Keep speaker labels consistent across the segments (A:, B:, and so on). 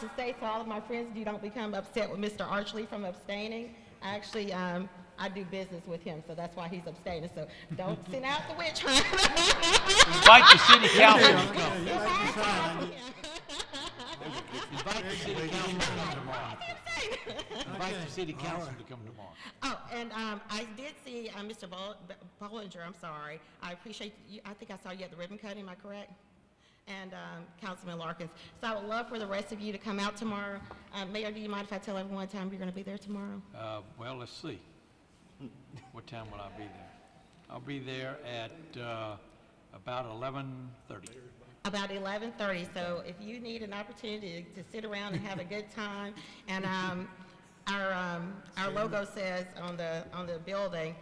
A: to say to all of my friends, you don't become upset with Mr. Archley from abstaining. Actually, um, I do business with him, so that's why he's abstaining. So don't send out the witch hunt.
B: Invite the city council. Invite the city council to come tomorrow. Invite the city council to come tomorrow.
A: Oh, and um, I did see uh, Mr. Bol- B- Bollinger, I'm sorry. I appreciate you, I think I saw you at the ribbon cutting, am I correct? And um, Councilman Larkins. So I would love for the rest of you to come out tomorrow. Uh, Mayor, do you mind if I tell everyone what time you're going to be there tomorrow?
B: Uh, well, let's see. What time will I be there? I'll be there at, uh, about eleven thirty.
A: About 11:30, so if you need an opportunity to sit around and have a good time, and um, our, um, our logo says on the, on the building,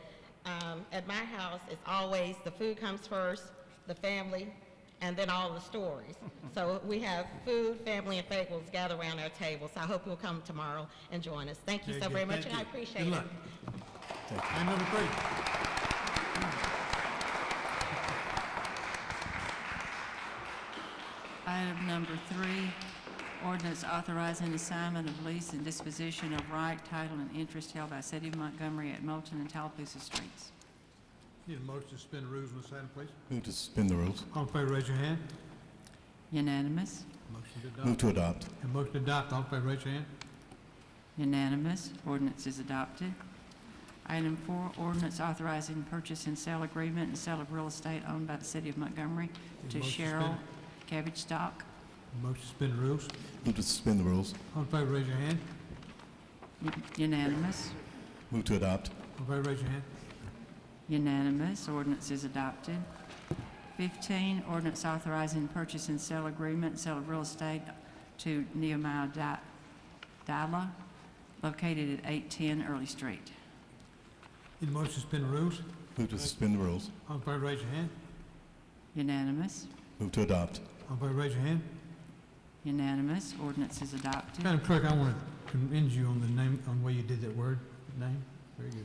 A: um, at my house, it's always, the food comes first, the family, and then all the stories. So we have food, family, and fables gather around our table, so I hope you'll come tomorrow and join us. Thank you
C: Very
A: so
C: good.
A: very much,
C: Thank
A: and I
C: you. Good
A: appreciate it.
C: luck. Item number three.
D: Item number three, ordinance authorizing assignment of lease and disposition of right, title, and interest held by City of Montgomery at Moulton and Tallapoosa Streets.
C: Need a motion to suspend the rules on this item, please?
E: Move to suspend the rules.
C: All in favor, raise your hand.
D: Unanimous?
C: Motion to
E: Move
C: adopt.
E: to adopt.
C: And motion to adopt, all in favor, raise your hand.
D: Unanimous. Ordinance is adopted. Item four, ordinance authorizing purchase and sale agreement and sale of real estate owned by the City of Montgomery to
C: Motion suspended.
D: Cheryl Cabbage Stock.
C: Motion to suspend the rules.
E: Move to suspend the rules.
C: All in favor, raise your hand.
D: Un- Unanimous.
E: Move to adopt.
C: All in favor, raise your hand.
D: Unanimous. Ordinance is adopted. 15, ordinance authorizing purchase and sale agreement, sale of real estate to Nehemiah Di- Dila, located at 810 Early Street.
C: Need a motion to suspend the rules.
E: Move to suspend the rules.
C: All in favor, raise your hand.
D: Unanimous.
E: Move to adopt.
C: All in favor, raise your hand.
D: Unanimous. Ordinance is adopted.
C: Madam Clerk, I want to commend you on the name, on the way you did that word, name. Very good.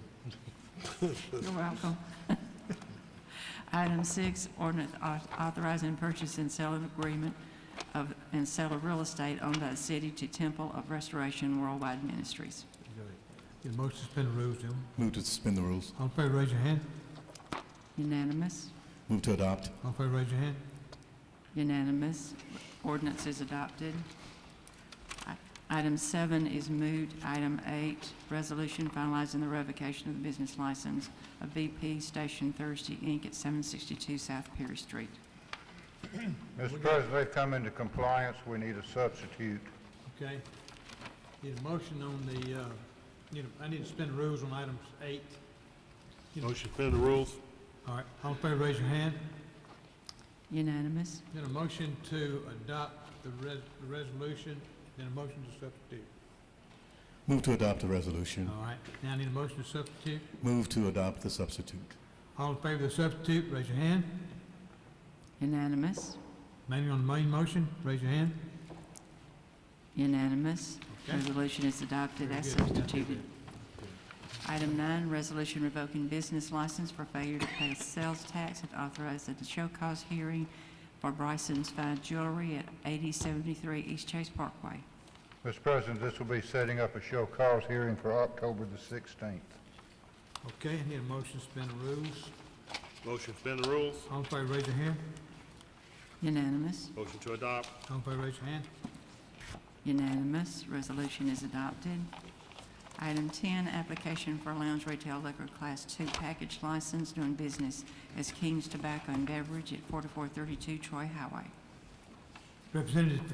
D: You're welcome. Item six, ordinance au- authorizing purchase and sale of agreement of, and sale of real estate owned by the city to Temple of Restoration Worldwide Ministries.
C: Good. Need a motion to suspend the rules, gentlemen.
E: Move to suspend the rules.
C: All in favor, raise your hand.
D: Unanimous?
E: Move to adopt.
C: All in favor, raise your hand.
D: Unanimous. Ordinance is adopted. I- Item seven is moved. Item eight, resolution finalizing the revocation of the business license of BP Station Thursday, Inc. at 762 South Perry Street.
F: Mr. President, they've come into compliance, we need a substitute.
C: Okay. Need a motion on the, uh, need a, I need to suspend the rules on items eight.
G: Motion to suspend the rules?
C: All right, all in favor, raise your hand.
D: Unanimous.
C: Then a motion to adopt the res, the resolution, then a motion to substitute.
E: Move to adopt the
G: Mm-hmm.
E: resolution.
C: All right, now I need a motion to substitute.
E: Move to adopt the substitute.
C: All in favor of the substitute, raise your hand.
D: Unanimous.
C: Mainly on the main motion, raise your hand.
D: Unanimous.
C: Okay.
D: Resolution is adopted
C: Very
D: as
C: good.
D: substituted. Item nine, resolution revoking business license for failure to pay sales tax and authorizing the show cause hearing for Bryson's Fine Jewelry at 8073 East Chase Parkway.
F: Mr. President, this will be setting up a show cause hearing for October the 16th.
C: Okay, I need a motion to suspend the rules.
G: Motion to suspend the rules?
C: All in favor, raise your hand.
D: Unanimous,
G: Motion to adopt?
C: All in favor, raise your hand.
D: unanimous, resolution is adopted. Item 10, application for lounge retail liquor class 2 package license doing business as King's Tobacco and Beverage at 4432 Troy Highway.
C: Representative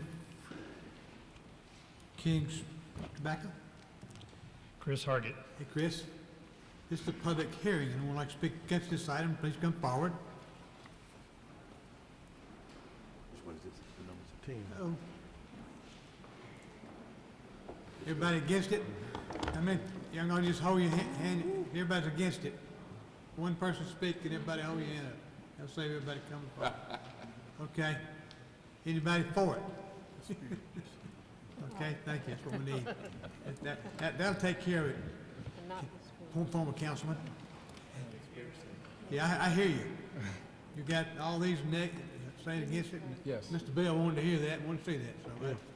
C: King's Tobacco?
H: Chris Hargit.
C: Hey, Chris, this is a public hearing. Anyone like to speak against this item, please come forward. Uh-oh. Everybody against it? I mean, you're gonna just hold your ha- hand, everybody's against it. One person speak and everybody hold your hand up. That'll save everybody coming forward. Okay? Anybody for it? Okay, thank you, that's what we need. That- That, that, that'll take care of it. Form- Former councilman. Yeah, I, I hear you. You got all these neg, saying against it. Yes. Mr. Bell wanted to hear that, wanted to see that, so